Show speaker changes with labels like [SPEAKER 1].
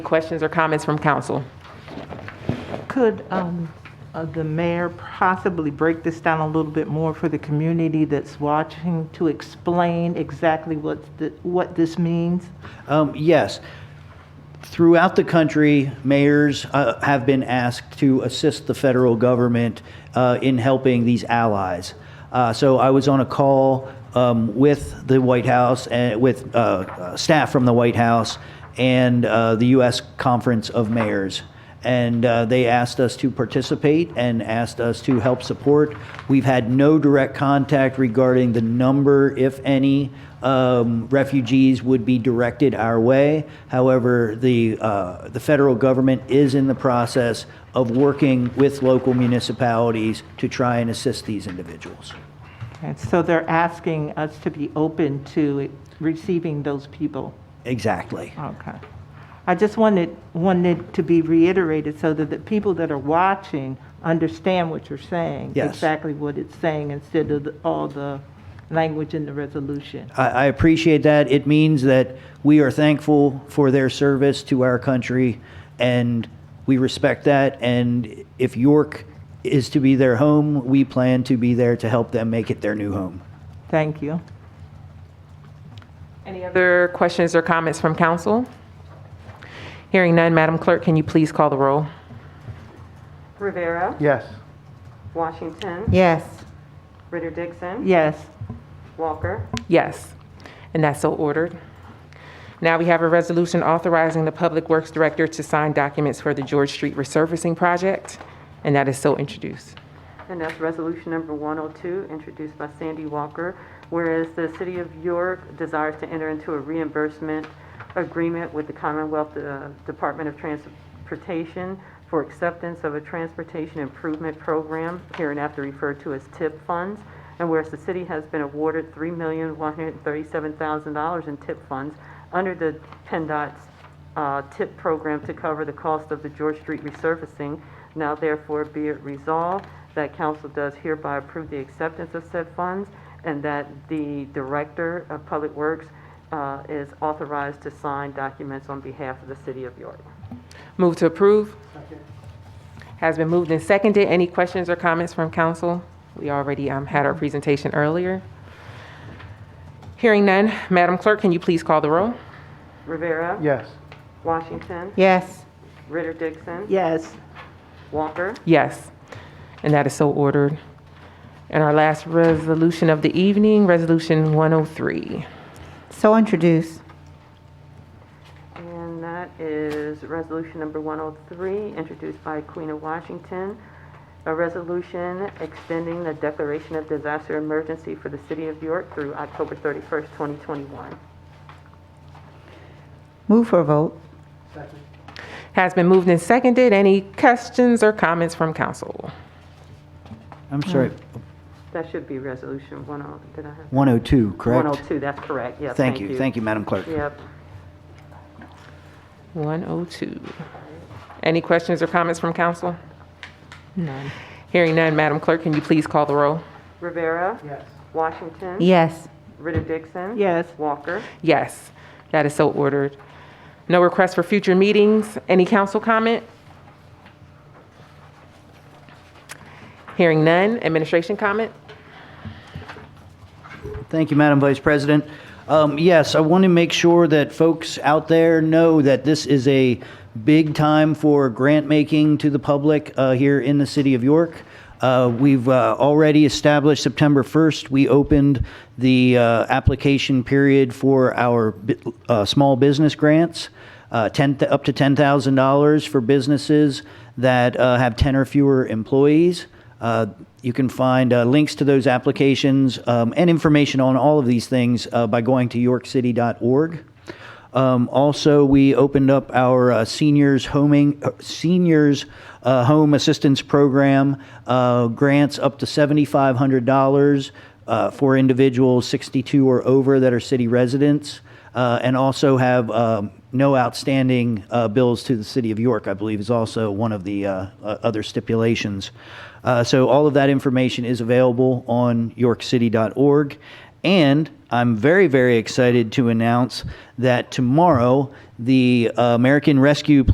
[SPEAKER 1] Questions or comments from council?
[SPEAKER 2] Could um, uh, the mayor possibly break this down a little bit more for the community that's watching to explain exactly what, the- what this means?
[SPEAKER 3] Um, yes. Throughout the country, mayors uh, have been asked to assist the federal government uh, in helping these allies. Uh, so I was on a call um, with the White House and with uh, uh, staff from the White House and uh, the U.S. Conference of Mayors and uh, they asked us to participate and asked us to help support. We've had no direct contact regarding the number, if any, um, refugees would be directed our way. However, the uh, the federal government is in the process of working with local municipalities to try and assist these individuals.
[SPEAKER 2] And so they're asking us to be open to receiving those people.
[SPEAKER 3] Exactly.
[SPEAKER 2] Okay. I just wanted, wanted to be reiterated so that the people that are watching understand what you're saying.
[SPEAKER 3] Yes.
[SPEAKER 2] Exactly what it's saying instead of the- all the language in the resolution.
[SPEAKER 3] I, I appreciate that. It means that we are thankful for their service to our country, and we respect that. And if York is to be their home, we plan to be there to help them make it their new home.
[SPEAKER 2] Thank you.
[SPEAKER 1] Any other questions or comments from council? Hearing none, Madam Clerk, can you please call the roll?
[SPEAKER 4] Rivera.
[SPEAKER 5] Yes.
[SPEAKER 4] Washington.
[SPEAKER 2] Yes.
[SPEAKER 4] Ritter Dixon.
[SPEAKER 2] Yes.
[SPEAKER 4] Walker.
[SPEAKER 1] Yes, and that's so ordered. Now we have a resolution authorizing the Public Works Director to sign documents for the George Street Resurfacing Project, and that is so introduced.
[SPEAKER 4] And that's resolution number 102, introduced by Sandy Walker. Whereas the City of York desires to enter into a reimbursement agreement with the Commonwealth uh, Department of Transportation for acceptance of a transportation improvement program, hereinafter referred to as TIP funds. And whereas the city has been awarded $3,137,000 in TIP funds under the PennDOT's uh, TIP program to cover the cost of the George Street resurfacing. Now therefore be it resolved that council does hereby approve the acceptance of said funds and that the Director of Public Works uh, is authorized to sign documents on behalf of the City of York.
[SPEAKER 1] Move to approve. Has been moved and seconded. Any questions or comments from council? We already um, had our presentation earlier. Hearing none, Madam Clerk, can you please call the roll?
[SPEAKER 4] Rivera.
[SPEAKER 5] Yes.
[SPEAKER 4] Washington.
[SPEAKER 2] Yes.
[SPEAKER 4] Ritter Dixon.
[SPEAKER 2] Yes.
[SPEAKER 4] Walker.
[SPEAKER 1] Yes, and that is so ordered. And our last resolution of the evening, Resolution 103.
[SPEAKER 6] So introduce.
[SPEAKER 4] And that is resolution number 103, introduced by Queen of Washington. A resolution extending the declaration of disaster emergency for the city of York through October 31st, 2021.
[SPEAKER 6] Move for a vote.
[SPEAKER 1] Has been moved and seconded. Any questions or comments from council?
[SPEAKER 3] I'm sorry,
[SPEAKER 4] That should be resolution 10, did I have?
[SPEAKER 3] 102, correct?
[SPEAKER 4] 102, that's correct, yes,
[SPEAKER 3] Thank you, thank you, Madam Clerk.
[SPEAKER 4] Yep.
[SPEAKER 1] 102. Any questions or comments from council? None. Hearing none, Madam Clerk, can you please call the roll?
[SPEAKER 4] Rivera. Yes. Washington.
[SPEAKER 6] Yes.
[SPEAKER 4] Ritter Dixon.
[SPEAKER 2] Yes.
[SPEAKER 4] Walker.
[SPEAKER 1] Yes, that is so ordered. No requests for future meetings. Any council comment? Hearing none. Administration comment?
[SPEAKER 3] Thank you, Madam Vice President. Um, Yes, I want to make sure that folks out there know that this is a big time for grant-making to the public uh, here in the city of York. Uh, We've uh, already established September 1st, we opened the uh, application period for our bi- uh, small business grants uh, 10, th- up to $10,000 for businesses that uh, have 10 or fewer employees. Uh, you can find uh, links to those applications um, and information on all of these things uh, by going to yorkcity.org. Um, also, we opened up our uh, seniors homing uh, seniors uh, home assistance program uh, grants up to seventy five hundred dollars uh, for individuals sixty two or over that are city residents, uh, and also have um, no outstanding uh, bills to the city of York. I believe is also one of the uh, uh, other stipulations. Uh, so all of that information is available on yorkcity.org, and I'm very, very excited to announce that tomorrow the uh, American Rescue